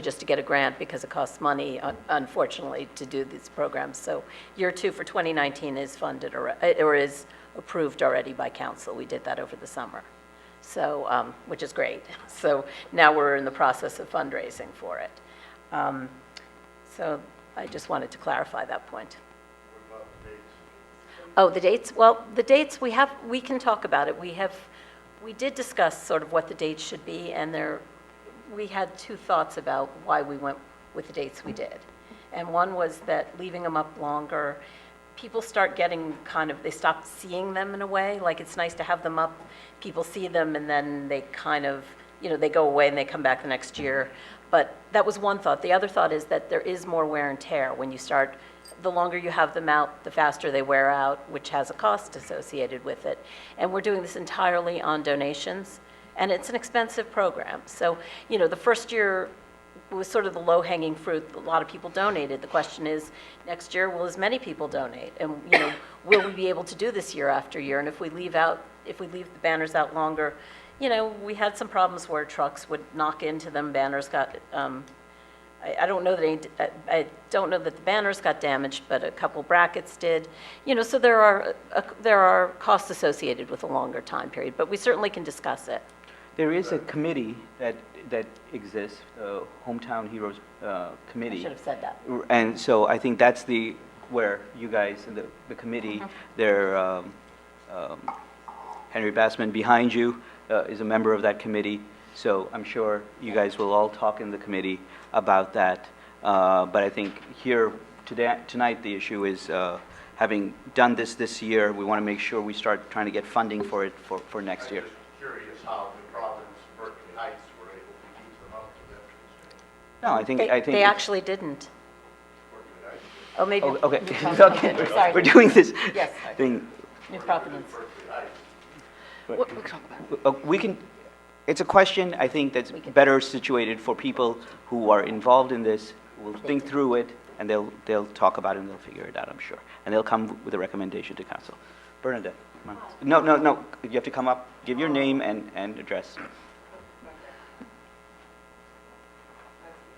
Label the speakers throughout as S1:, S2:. S1: just to get a grant because it costs money, un- unfortunately, to do these programs. So year two for 2019 is funded or, uh, or is approved already by council. We did that over the summer, so, um, which is great. So now we're in the process of fundraising for it. Um, So I just wanted to clarify that point. Oh, the dates, well, the dates, we have, we can talk about it. We have, we did discuss sort of what the dates should be, and there, we had two thoughts about why we went with the dates we did. And one was that leaving them up longer, people start getting kind of, they stop seeing them in a way, like it's nice to have them up, people see them, and then they kind of, you know, they go away and they come back the next year. But that was one thought. The other thought is that there is more wear and tear when you start the longer you have them out, the faster they wear out, which has a cost associated with it. And we're doing this entirely on donations, and it's an expensive program. So, you know, the first year was sort of the low-hanging fruit. A lot of people donated. The question is, next year, will as many people donate? And, you know, will we be able to do this year after year? And if we leave out, if we leave the banners out longer, you know, we had some problems where trucks would knock into them, banners got, um, I, I don't know that any, I, I don't know that the banners got damaged, but a couple brackets did. You know, so there are, uh, there are costs associated with a longer time period, but we certainly can discuss it.
S2: There is a committee that, that exists, the Hometown Heroes uh,
S1: I
S2: Committee.
S1: should have said that.
S2: And so I think that's the, where you guys and the, the committee,
S1: Uh-huh.
S2: there, um, um, Henry Bassman behind you uh, is a member of that committee, so I'm sure you guys will all talk in the committee about that. Uh, But I think here, today, tonight, the issue is, uh, having done this this year, we want to make sure we start trying to get funding for it for, for next year.
S3: I'm just curious how the Providence, Berkeley Heights were able to keep them up to Veterans Day.
S2: No, I think,
S1: They,
S2: I think.
S1: they actually didn't.
S3: Berkeley Heights,
S1: Oh, maybe.
S2: Oh, Okay,
S1: New Providence.
S2: okay,
S1: Sorry.
S2: we're doing this
S1: Yes.
S2: thing.
S1: New Providence.
S3: Berkeley Heights.
S2: Uh, We can, it's a question, I think, that's better situated for people who are involved in this, will think through it, and they'll, they'll talk about it, and they'll figure it out, I'm sure. And they'll come with a recommendation to council. Bernadette, come on. no, no, no, you have to come up, give your name and, and address.
S4: Do I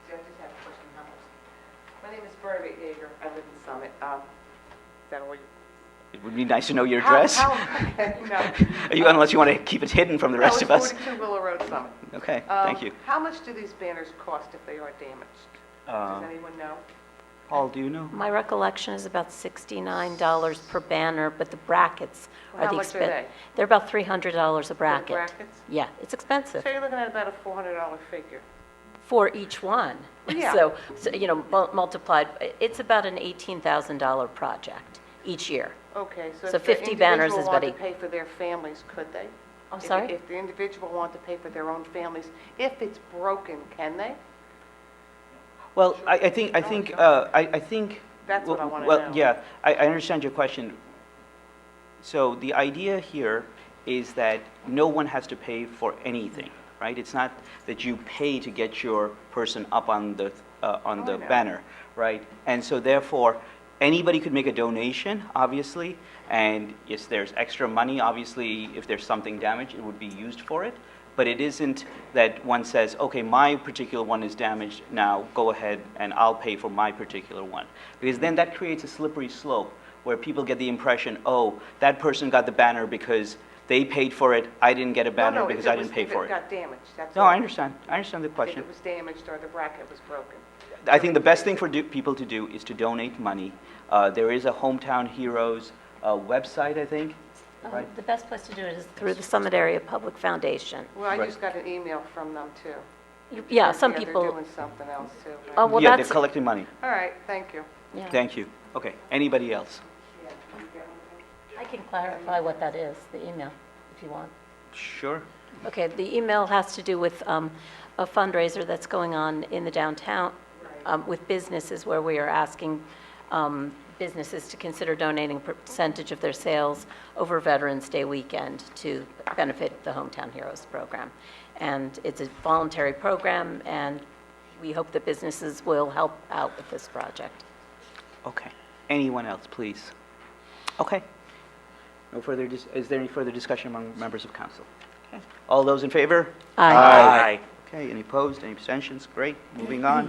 S4: just have a question? How much? My name is Bernadette Yeager. I live in Summit. Um, Is that all you?
S2: It would be nice to know your address,
S4: How- how- No.
S2: You- unless you want to keep it hidden from the rest of us.
S4: No, it's 42 Willow Road, Summit.
S2: Okay,
S4: Um,
S2: thank you.
S4: How much do these banners cost if they are damaged? Does
S2: Uh,
S4: anyone know?
S2: Paul, do you know?
S1: My recollection is about $69 per banner, but the brackets are
S4: How
S1: the
S4: much are
S1: expen-
S4: they?
S1: They're about $300 a bracket.
S4: brackets?
S1: Yeah, it's expensive.
S4: So you're looking at about a $400 figure.
S1: for each one.
S4: Yeah.
S1: So, so, you know, mul- multiplied, it's about an $18,000 project each year.
S4: Okay, so
S1: So
S4: if the
S1: 50 banners
S4: individual
S1: is
S4: wanted to
S1: about
S4: pay for their families, could they?
S1: I'm
S4: If-
S1: sorry?
S4: If the individual wanted to pay for their own families, if it's broken, can they?
S2: Well, I, I think, I think, uh, I, I think.
S4: That's what I
S2: well,
S4: wanna
S2: Well,
S4: know.
S2: yeah, I, I understand your question. So the idea here is that no one has to pay for anything, right? It's not that you pay to get your person up on the, uh, on the
S4: Oh, I know.
S2: banner, right? And so therefore, anybody could make a donation, obviously, and if there's extra money, obviously, if there's something damaged, it would be used for it. But it isn't that one says, okay, my particular one is damaged, now go ahead and I'll pay for my particular one. Because then that creates a slippery slope where people get the impression, oh, that person got the banner because they paid for it, I didn't get a
S4: No,
S2: banner
S4: no, if
S2: because I
S4: was-
S2: didn't pay for
S4: If it
S2: it.
S4: got damaged, that's
S2: No,
S4: all.
S2: I understand, I understand the
S4: If
S2: question.
S4: it was damaged or the bracket was broken.
S2: I think the best thing for do- people to do is to donate money. Uh, There is a Hometown Heroes uh, website, I think, right?
S1: Um, The best place to do it is through the Summit Area Public Foundation.
S4: Well, I
S2: Right.
S4: just got an email from them, too.
S1: You- Yeah, some
S4: Yeah, They're
S1: people,
S4: doing something else, too.
S1: Oh, well,
S2: Yeah, they're
S1: that's-
S2: collecting money.
S4: All right, thank you.
S1: yeah.
S2: Thank you. Okay, anybody else?
S1: I can clarify what that is, the email, if you want.
S2: Sure.
S1: Okay, the email has to do with um, a fundraiser that's going on in the downtown um, with businesses where we are asking um, businesses to consider donating a percentage of their sales over Veterans Day weekend to benefit the Hometown Heroes program. And it's a voluntary program, and we hope that businesses will help out with this project.
S2: Okay. Anyone else, please? Okay. No further, dis- is there any further discussion among members of council? All those in favor?
S1: Aye.
S2: Aye. Okay, any opposed, any abstentions? Great, moving on.